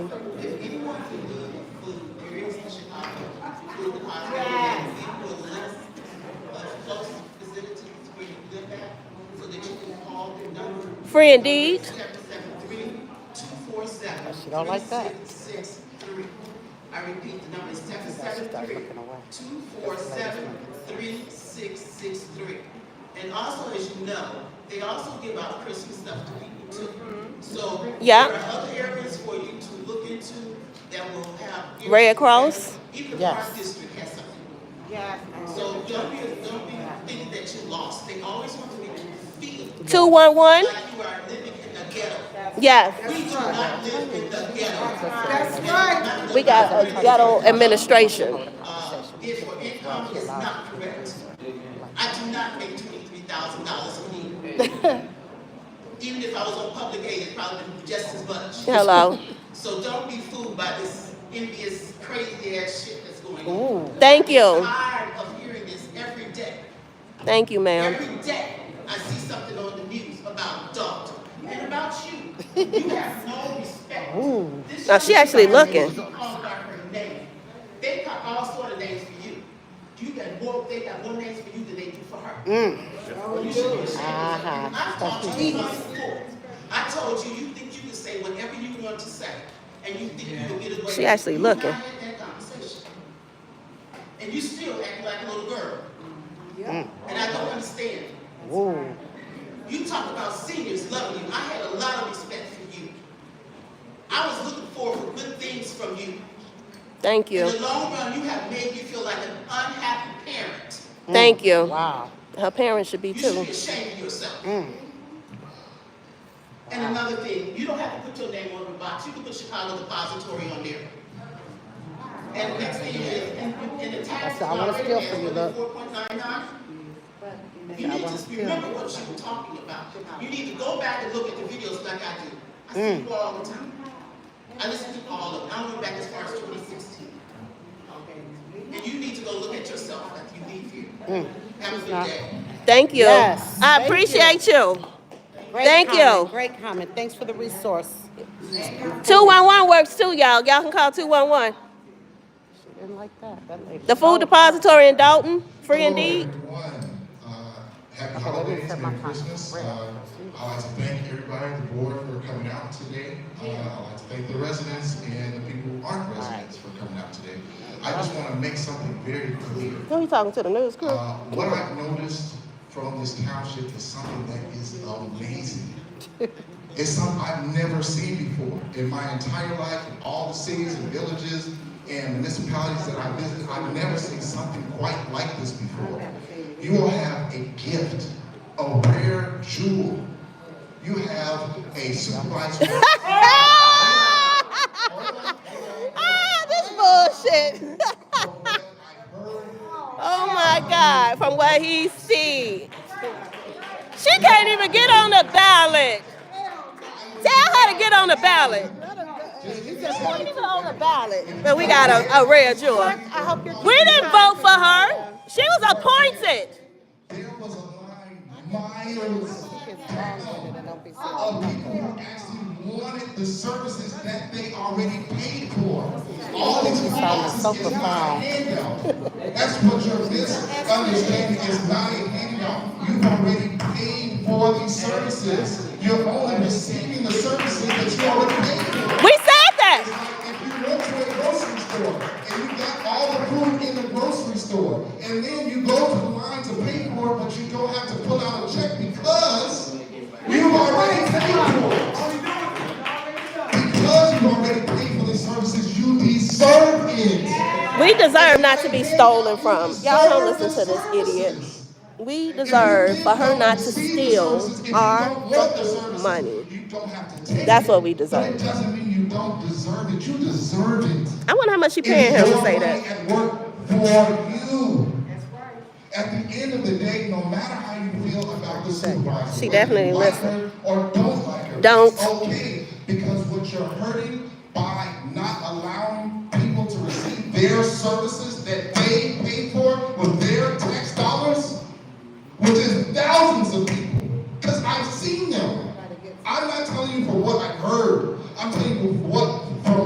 Free indeed. I should don't like that. I repeat, the number is seven I should seven start three, looking away. two four seven, three six six three. And also, as you know, they also give out Christmas stuff to people too. So Yeah. there are other areas for you to look into that will have. Red Cross? Even the Yes. Park District has something. Yeah. So don't be, don't be thinking that you're lost. They always want to make you feel Two one one. like you are living in a ghetto. Yes. We do not live in the ghetto. That's right. We got a ghetto administration. Uh, therefore, income is not correct. I do not make twenty-three thousand dollars a year. Even if I was on public aid, it probably would be just as much. Hello. So don't be fooled by this envious, crazy ass shit that's going on. Ooh, Thank you. Tired of hearing this every day. Thank you, ma'am. Every day, I see something on the news about Dalton and about you. You have no respect. This Now, she young actually lady looking. is called by her name. They got all sort of names for you. You got more, they got more names for you than they do for her. You should be ashamed of yourself. Uh-huh. I've talked to you once before. I told you, you think you can say whatever you want to say, and you think you can get away. She actually You and I looking. had that conversation. And you still act like a little girl. Mm. And I don't understand. ooh. You talk about seniors loving you. I had a lot of respect for you. I was looking forward for good things from you. Thank In you. the long run, you have made me feel like an unhappy parent. Thank you. Wow. Her parents should be You should too. be ashamed of yourself. Mm. And another thing, you don't have to put your name on the box. You can put Chicago Depository on there. And next thing is, and, and the tax. That's- I wanna steal from you, look. Four point nine nine. You need to remember what you were talking about. You need to go back and look at the videos like I do. I see Mm. you all the time. I listen to all of them. I went back as far as twenty sixteen. And you need to go look at yourself after you leave Mm. here. Have a good day. Thank you. Yes. I Thank you. appreciate you. Great Thank comment, you. Great comment. Thanks for the resource. Two one one works too, y'all. Y'all can call two one one. She didn't like that. That lady. The food Oh, depository in Dalton, free indeed. Everyone, uh, happy Okay, let me holidays, set my Merry timer. Christmas. Right. Uh, I'd like to thank everybody, on the board for coming out today. Uh, I'd like to thank the residents and the people who aren't residents for coming out today. I just want to make something very clear. Who you talking to? The news crew? Uh, what I've noticed from this township is something that is amazing. It's something I've never seen before in my entire life, in all the cities and villages and municipalities that I visited. I've never seen something quite like this before. You all have a gift, a rare jewel. You have a supervised. ah, this bullshit. oh my God, from what he see. She can't even get on the ballot. Tell her to get on the ballot. She ain't even on the ballot. But we got a, a rare jewel. I hope you're. We didn't vote for her. She was appointed. There was a line miles It's long-winded and don't be silly. of people who actually wanted the services that they already paid for. All these sounded policies so is not a profound. handout. That's what your misunderstanding is not a handout. You've already paid for these services. You're only receiving the services that you already paid for. We said that. If you went to a grocery store and you got all the food in the grocery store, and then you go to the line to pay for it, but you don't have to pull out a check because you already paid for it. Because you already paid for the services, you deserve it. We deserve not to be stolen from. Y'all don't listen to this idiot. We deserve for her not to steal our fucking money. That's That's what we deserve. But it doesn't mean you don't deserve it. You deserve it. I wonder how much she paying him to say that. At work for you. At the end of the day, no matter how you feel about the supervisor, She whether you definitely like listen. her Or don't like her. Don't. It's okay, because what you're hurting by not allowing people to receive their services